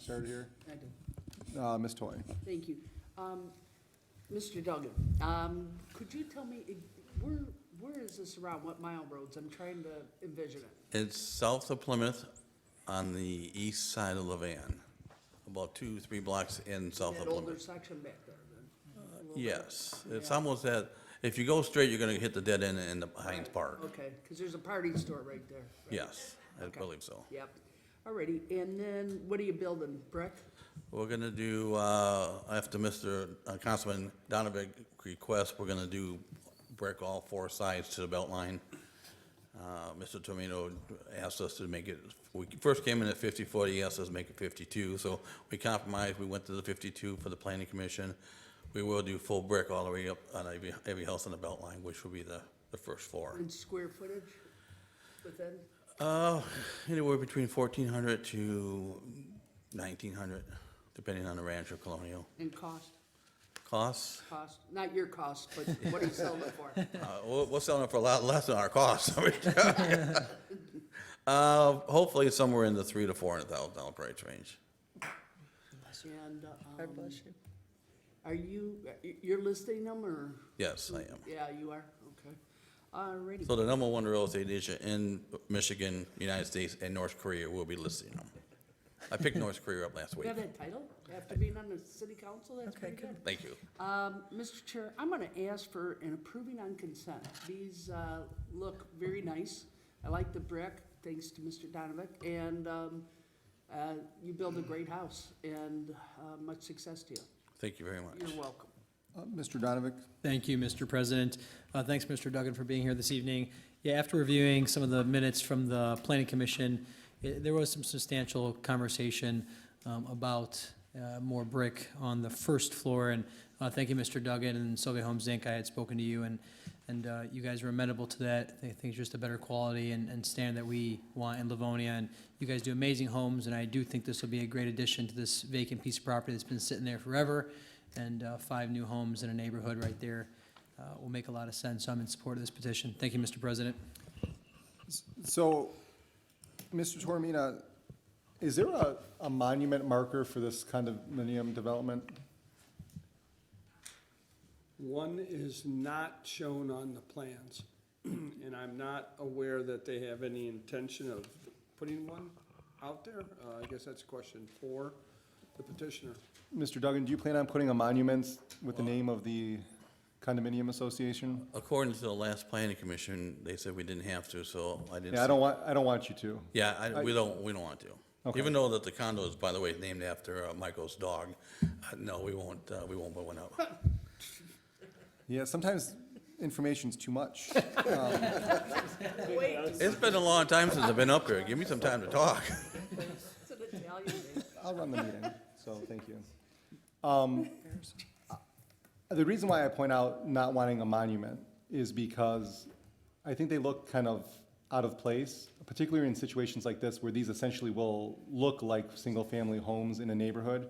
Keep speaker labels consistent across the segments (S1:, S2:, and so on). S1: started here?
S2: I do.
S1: Uh, Ms. Toy.
S2: Thank you. Um, Mr. Duggan, um, could you tell me, i- where, where is this around? What mile roads? I'm trying to envision it.
S3: It's south of Plymouth on the east side of Levan, about two, three blocks in south of
S2: That older
S3: Plymouth.
S2: section back there then.
S3: Yes, it's
S2: Yeah.
S3: almost that, if you go straight, you're gonna hit the dead end in the Heinz Park.
S2: Okay, because there's a party store right there. right?
S3: Yes, I
S2: Okay.
S3: believe so.
S2: Yep. Alrighty, and then what are you building, brick?
S3: We're gonna do, uh, after Mr. Councilman Donovan requests, we're gonna do brick all four sides to the belt line. Uh, Mr. Tomino asked us to make it, we first came in at 50-40, he asked us to make it 52, so we compromised, we went to the 52 for the planning commission. We will do full brick all the way up on every, every house on the belt line, which will be the, the first floor.
S2: And square footage within?
S3: Uh, Anywhere between 1,400 to 1,900, depending on the ranch or colonial
S2: And cost,
S3: costs.
S2: cost, not your cost, but what are you selling it for?
S3: Uh, We're we're selling it for a lot less than our cost. I mean, Uh, Hopefully somewhere in the three to four hundred thousand dollar price range.
S2: And, um, are you, you're listing them or?
S3: Yes, I am.
S2: Yeah, you are, okay. Alrighty.
S3: So the number one real estate agent in Michigan, United States, and North Korea will be listing them. I picked North Korea up last
S2: You
S3: week.
S2: have that title? After being on the city council, that's
S4: Okay,
S2: pretty good.
S3: Thank you.
S2: Um, Mr. Chair, I'm gonna ask for an approving on consent. These, uh, look very nice. I like the brick, thanks to Mr. Donovan, and, um, uh, you build a great house, and, uh, much success to you.
S3: Thank you very much.
S2: You're welcome.
S1: Uh, Mr. Donovan,
S5: Thank you, Mr. President. Uh, Thanks, Mr. Duggan, for being here this evening. Yeah, after reviewing some of the minutes from the Planning Commission, i- there was some substantial conversation um, about uh, more brick on the first floor. And uh, thank you, Mr. Duggan and Sylvia Holmes Inc. I had spoken to you, and, and uh, you guys were amenable to that. I think it's just a better quality and, and standard that we want in Livonia. And you guys do amazing homes, and I do think this will be a great addition to this vacant piece of property that's been sitting there forever and uh, five new homes in a neighborhood right there uh, will make a lot of sense. So I'm in support of this petition. Thank you, Mr. President.
S1: so, Mr. Tormina, is there a, a monument marker for this condominium development?
S6: One is not shown on the plans, and I'm not aware that they have any intention of putting one out there. Uh, I guess that's question for the petitioner.
S1: Mr. Duggan, do you plan on putting a monument with the name of the condominium association?
S3: According to the last planning commission, they said we didn't have to, so I didn't.
S1: Yeah, I
S3: see-
S1: don't want, I don't want you to.
S3: Yeah, I, we don't, we don't want to.
S1: Okay.
S3: Even though that the condo is, by the way, named after uh, Michael's dog, uh, no, we won't, uh, we won't put one up.
S1: Yeah, sometimes information's too much.
S3: It's been a long time since I've been up here. Give me some time to talk.
S2: It's an Italian name.
S1: I'll run the meeting, so thank you. Um, The reason why I point out not wanting a monument is because I think they look kind of out of place, particularly in situations like this where these essentially will look like single-family homes in a neighborhood.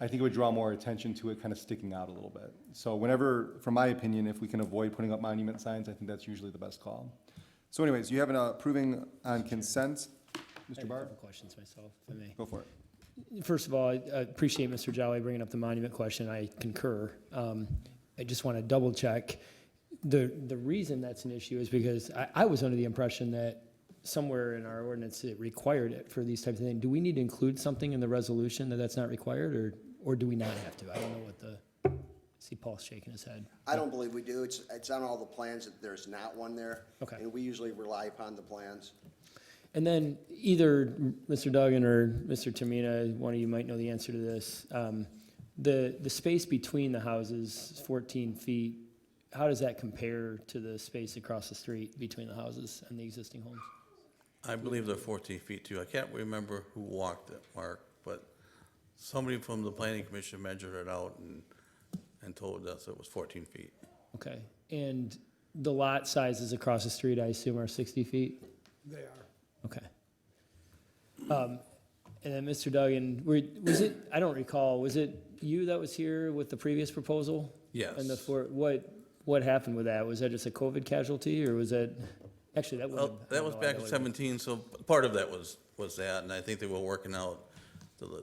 S1: I think it would draw more attention to it kind of sticking out a little bit. So whenever, from my opinion, if we can avoid putting up monument signs, I think that's usually the best call. So anyways, you have an approving on consent. Mr.
S7: I have a
S1: Barb,
S7: couple questions myself, if I may.
S1: go for it.
S7: First of all, I I appreciate Mr. Jolly bringing up the monument question. I concur. Um, I just want to double check. The, the reason that's an issue is because I, I was under the impression that somewhere in our ordinance, it required it for these types of things. Do we need to include something in the resolution that that's not required, or, or do we not have to? I don't know what the, I see Paul shaking his head.
S8: I don't believe we do. It's, it's on all the plans that there's not one there.
S7: Okay.
S8: And we usually rely upon the plans.
S7: And then either Mr. Duggan or Mr. Tamina, one of you might know the answer to this. Um, The, the space between the houses, 14 feet, how does that compare to the space across the street between the houses and the existing homes?
S3: I believe they're 14 feet too. I can't remember who walked it, Mark, but somebody from the planning commission measured it out and, and told us it was 14 feet.
S7: Okay, and the lot sizes across the street, I assume, are 60 feet?
S6: They are.
S7: Okay. Um, And then, Mr. Duggan, were- was it, I don't recall, was it you that was here with the previous proposal?
S3: Yes.
S7: And the four, what, what happened with that? Was that just a COVID casualty, or was that, actually, that would
S3: Well,
S7: have.
S3: that was back in 17, so part of that was, was that, and I think they were working out the